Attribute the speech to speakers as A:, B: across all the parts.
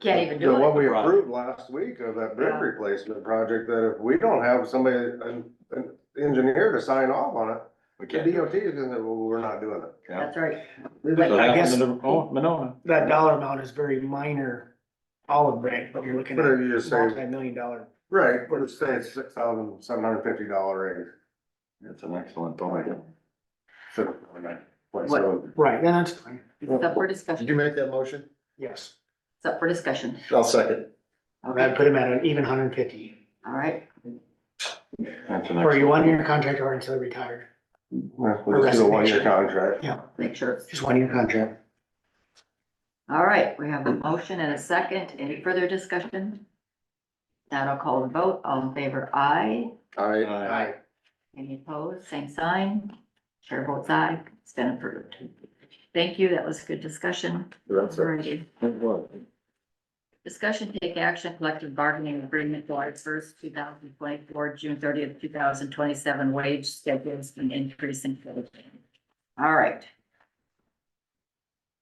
A: Can't even
B: The
A: do
B: one
A: it.
B: we
C: Right.
B: approved last week of that brick
A: Yeah.
B: replacement project, that if we don't have somebody, an, an engineer to sign off on it,
C: We
B: the
C: can't do
B: DOT is gonna, say, well, we're not doing it.
C: it. Yeah.
A: That's right. We wait.
C: So that
D: guess-
C: happened in the- Oh, Monona.
D: that dollar amount is very minor olive branch, but you're looking
B: But if
D: at
B: you just say,
D: multi-million dollar.
B: right, but it's, it's six thousand seven hundred fifty dollar range.
C: That's an excellent point.
B: So, I mean, like, so-
D: Right, and that's fine,
A: It's up for discussion.
E: make that motion?
D: yes.
A: It's up for discussion.
E: I'll second.
D: I'd
A: Okay,
D: put him at an even hundred and fifty,
A: all right.
C: That's an
D: or
C: excellent-
D: you one year contract or until retired,
B: Yeah, We'll just do a one-year contract.
A: Make sure. it's-
D: just one year contract.
A: All right, we have a motion and a second. Any further discussion? Now I'll call the vote. All in favor, aye.
B: All right.
C: Aye.
A: Any opposed, same sign. Chair votes aye. It's been approved. Thank you. That was a good discussion.
C: That's it.
A: Alrighty.
C: It was.
A: Discussion, take action, collective bargaining agreement July first, two thousand twenty-four, June thirtieth, two thousand twenty-seven wage schedules and increase in. pay. All right,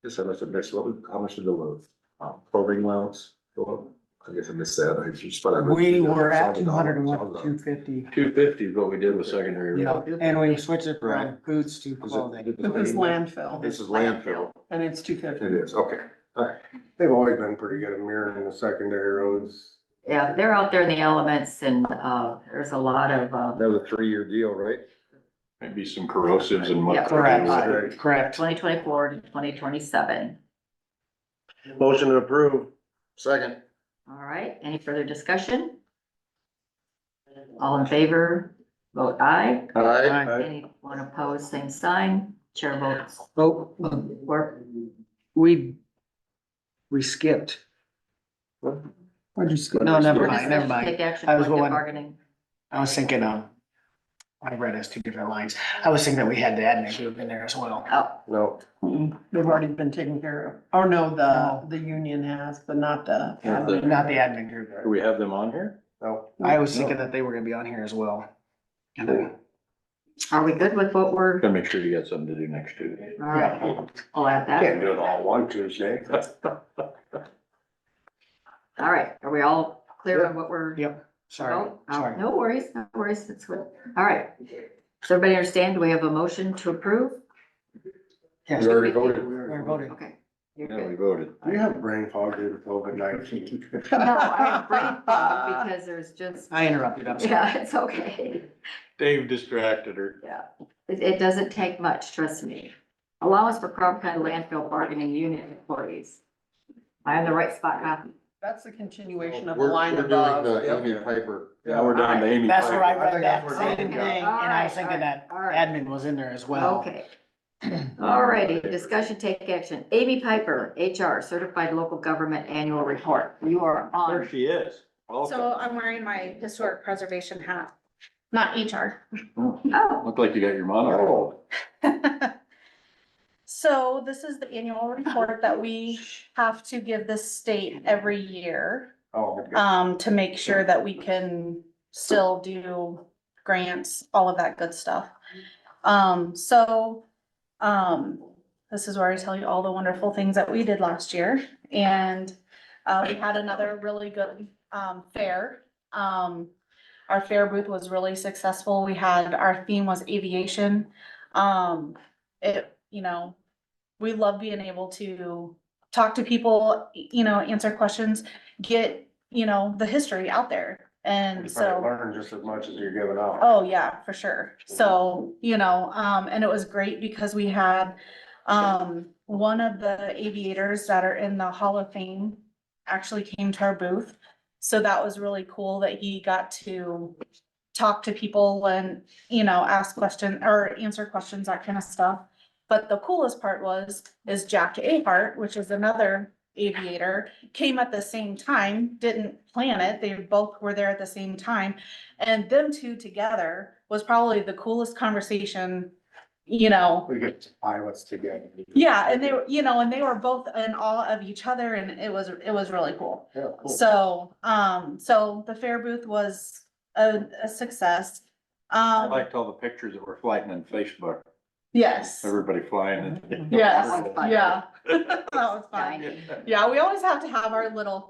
E: Yes, I must have missed, what, was- how much did the load, uh, probing loads go up? I guess I missed that, I just. thought I missed
D: We
E: it.
D: were
E: Saw
D: at
E: the
D: two hundred and
E: dollar,
D: one,
E: saw
D: two
E: the-
D: fifty,
C: Two fifty is what we did with secondary.
D: yeah, and we switched it from
E: Right.
D: boots to
E: Is it-
D: clothing.
E: did the
F: It was
E: thing-
F: landfill
E: This is landfill,
F: and it's two
E: it
F: fifty.
E: is, okay,
B: They've always been pretty good at mirroring the secondary roads.
A: yeah, they're out there in the elements and, uh, there's a lot of, uh,
E: that was a three-year deal, right?
C: Maybe some corrosives and what.
A: Yeah,
D: Correct, correct.
A: twenty twenty-four to twenty twenty-seven.
B: Motion to approve.
E: Second.
A: All right, any further discussion? All in favor, vote aye.
E: Aye.
D: Aye.
A: Anyone opposed, same sign. Chair votes
F: Oh,
A: for.
F: we, we skipped. Why'd you skip?
D: No, never mind, never
A: Take
D: mind,
A: action,
D: I was
A: collective
D: going-
A: bargaining.
D: I was thinking, um, I read as two different lines, I was thinking that we had the admin group in there as well.
A: Oh,
B: No,
F: Mm-mm, They've already been taken care of. Oh, no, the, the union has, but not the.
C: Yeah, the-
D: Not the admin group,
C: Do we have them on here?
B: no.
D: I was thinking that they were gonna be on here as well. And then-
A: are we good with what we're,
C: Gotta make sure you got something to do next Tuesday.
A: all right, I'll add that.
B: Can't do it all one Tuesday.
A: All right, are we all clear on what we're?
D: Yep, sorry,
A: Oh, oh,
D: sorry.
A: No worries, no worries, it's good. All right. Does everybody understand? Do we have a motion to approve?
D: Yes,
E: We already voted.
D: we're voting.
A: Okay. You're
C: Yeah, we
A: good.
C: voted.
B: Do you have brain fog due to COVID nineteen?
A: No, I have brain fog because there's just,
D: I interrupted, I'm sorry.
A: yeah, it's okay.
C: Dave distracted her.
A: Yeah, it, it doesn't take much, trust me. Allowance for Crawford County landfill bargaining unit employees. Am I on the right spot, Matthew?
F: That's the continuation of the
E: We're, we're
F: line
E: doing
F: above.
E: the Amy Piper.
C: Now we're down to Amy.
D: That's
C: Piper.
D: where I
B: I think
D: read that
B: that's where
D: same
B: David
D: thing,
B: got it.
D: and I was thinking that
A: All right.
D: admin was in there as well.
A: Okay. Alrighty, discussion take action. Amy Piper, HR, Certified Local Government Annual Report. You are
C: There
A: on.
C: she is. Welcome.
G: So I'm wearing my historic preservation hat, not HR.
C: Oh,
A: Oh,
C: Looked like you got your monocle.
B: Oh,
G: So this is the annual report that we have to give the state every year,
B: oh, okay.
G: um, to make sure that we can still do grants, all of that good stuff. Um, so, um, this is where I tell you all the wonderful things that we did last year. And, uh, we had another really good, um, fair. Um, our fair booth was really successful. We had, our theme was aviation. Um, it, you know, we love being able to talk to people, y- you know, answer questions, get, you know, the history out there.
B: You
G: And so.
B: probably learn just as much as you're giving out.
G: Oh, yeah, for sure. So, you know, um, and it was great because we had, um, one of the aviators that are in the Hall of Fame actually came to our booth. So that was really cool that he got to talk to people and, you know, ask questions or answer questions, that kind of stuff. But the coolest part was, is Jack Ahart, which is another aviator, came at the same time, didn't plan it. They both were there at the same time. And them two together was probably the coolest conversation, you know.
B: We get pilots together.
G: Yeah, and they were, you know, and they were both in awe of each other and it was, it was really cool.
B: Yeah, cool.
G: So, um, so the fair booth was a, a success.
C: I
G: Um,
C: liked all the pictures that were flying on Facebook,
G: yes,
C: everybody flying. and-
G: yes,
A: That was fun.
G: yeah. That was fun.
A: Dining.
G: Yeah, we always have to have our little